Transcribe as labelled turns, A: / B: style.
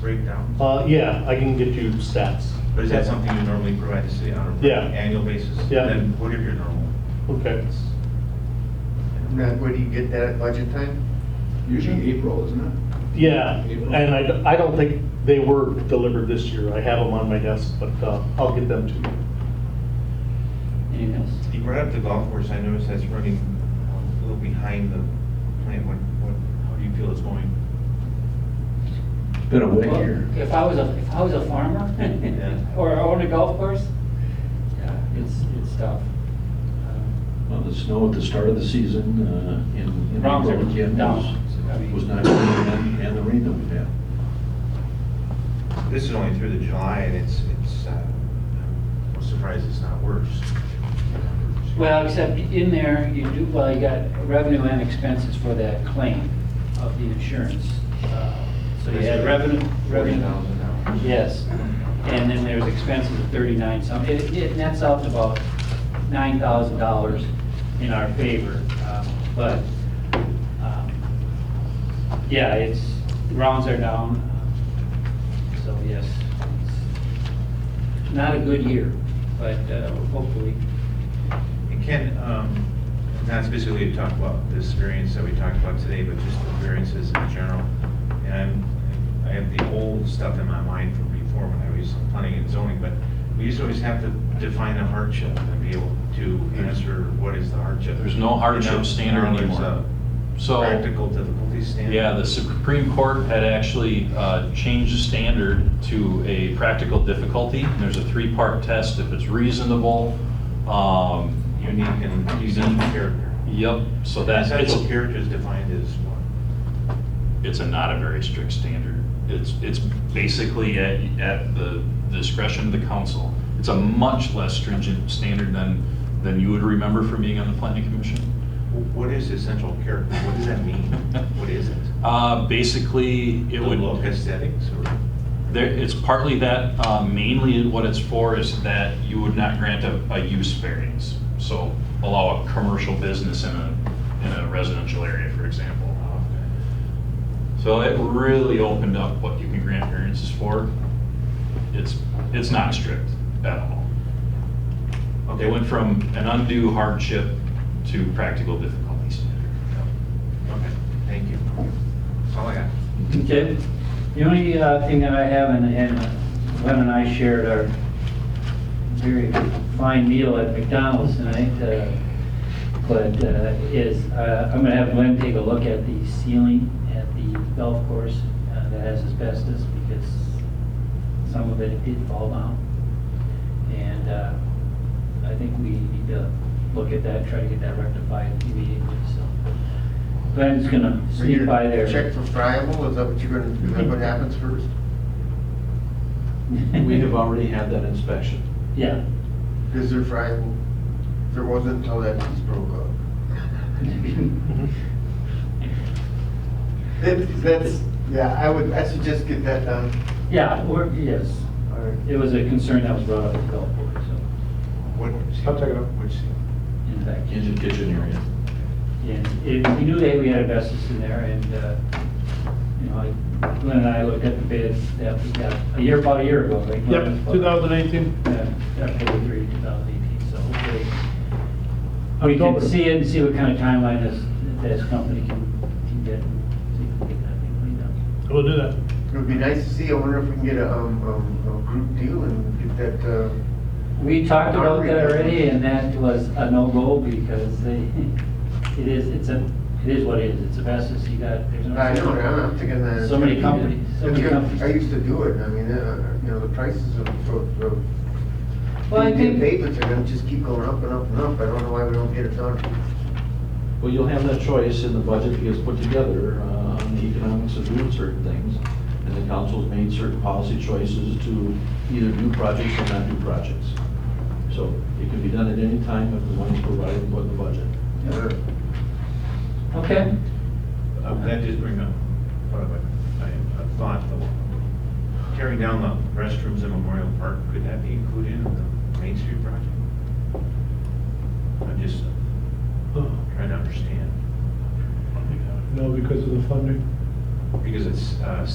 A: breakdowns?
B: Uh, yeah, I can get you stats.
A: Or is that something you normally provide the city on an
B: Yeah.
A: annual basis?
B: Yeah.
A: Then what are your normal?
B: Okay.
C: Now, where do you get that at budget time?
D: Usually April, isn't it?
B: Yeah, and I, I don't think they were delivered this year. I have them on my desk, but, uh, I'll get them to you.
E: Anything else?
A: You brought up the golf course, I noticed that's running um, a little behind the plan. What, what, how do you feel it's going?
D: It's been a wet
E: Well,
D: year.
E: If I was a, if I was a farmer or owned a golf course, yeah, it's, it's tough. Uh,
D: Well, the snow at the start of the season uh, in in
E: Rounds
D: April
E: are
D: again
E: down. I
D: was,
E: mean-
D: was not, good, and and the rain that we've had.
A: This is only through the July and it's, it's, uh, I'm surprised it's not worse.
E: Well, except in there, you do, well, you got revenue and expenses for that claim of the insurance. Uh, So you had revenue,
A: Forty
E: revenue,
A: thousand dollars.
E: yes. And then there's expenses of 39 some, it, it nets out to about $9,000 in our favor. Um, But, um, yeah, it's, rounds are down, so yes. it's Not a good year, but uh, hopefully.
A: And Ken, um, not specifically to talk about this variance that we talked about today, but just the variances in general. And I'm, I have the old stuff in my mind from before when I was planning and zoning, but we used to always have to define a hardship and be able to answer what is the hardship.
F: There's no hardship
A: You know,
F: standard
A: now there's
F: anymore.
A: a
F: So,
A: Practical difficulty standard.
F: yeah, the Supreme Court had actually uh, changed the standard to a practical difficulty. There's a three-part test, if it's reasonable, um,
A: Unique and essential character.
F: yep, so that, it's,
A: Essential character is defined as what?
F: it's a not a very strict standard. It's, it's basically at, at the discretion of the council. It's a much less stringent standard than, than you would remember from being on the planning commission.
A: What is essential character? What does that mean? What is it?
F: Uh, Basically,
A: The
F: it would.
A: look aesthetics or?
F: There, it's partly that, uh, mainly what it's for is that you would not grant a, a use variance. So allow a commercial business in a, in a residential area, for example. So it really opened up what you can grant variances for. It's, it's not strict at all. They went from an undue hardship to practical difficulty standard.
A: Okay, thank you. That's all I got.
E: Okay. The only uh, thing that I have, and and Glenn and I shared our very fine meal at McDonald's tonight, uh, but uh, is, uh, I'm gonna have Glenn take a look at the ceiling at the golf course uh, that has asbestos, because some of it did fall down. And uh, I think we need to look at that, try to get that rectified immediately, so. Glenn's gonna sneak by there.
C: Check for friable, is that what you're gonna, is that
E: Mm-hmm.
C: what happens first?
D: We have already had that inspection.
E: Yeah.
C: Is there friable? There wasn't until that piece broke up.
B: Mm-hmm.
C: That's, that's, yeah, I would, I should just get that done.
E: Yeah, or, yes,
C: All right.
E: it was a concern that was brought up at the golf board, so,
A: What?
B: I'll check it out.
A: Which,
E: in fact,
D: Kitchen, kitchen area.
E: and it, we knew that we had asbestos in there, and, uh, you know, I- Glenn and I looked at the bids that we got a year, about a year ago, right? Glenn?
B: Yep, 2018.
E: Yeah, October three, two thousand eighteen, so hopefully, we can
B: October.
E: see it and see what kind of timeline this, this company can, can get, see if we can get that thing cleaned up.
B: I will do that.
C: It would be nice to see, I wonder if we can get a, um, um, a group deal and get that, uh,
E: We talked about that already, and that was a no-go because they, it is, it's a, it is what it is, it's a business, you got, there's no.
C: I don't know, I'm thinking that.
E: So many companies, so many
C: I
E: companies.
C: used to do it, I mean, uh, you know, the prices of, of, of.
E: Well, I
C: the
E: think,
C: Payments are gonna just keep going up and up and up, I don't know why we don't get it done.
D: Well, you'll have that choice in the budget that gets put together uh, on the economics of doing certain things. And the council's made certain policy choices to either do projects or not do projects. So it can be done at any time if the money's provided and put in the budget.
C: Uh,
E: okay,
A: uh, that just bring up, what about, I, I thought, the- tearing down the restrooms in Memorial Park, could that be included in the Main Street project? I'm just trying to understand,
B: No, because of the funding.
A: because it's, uh,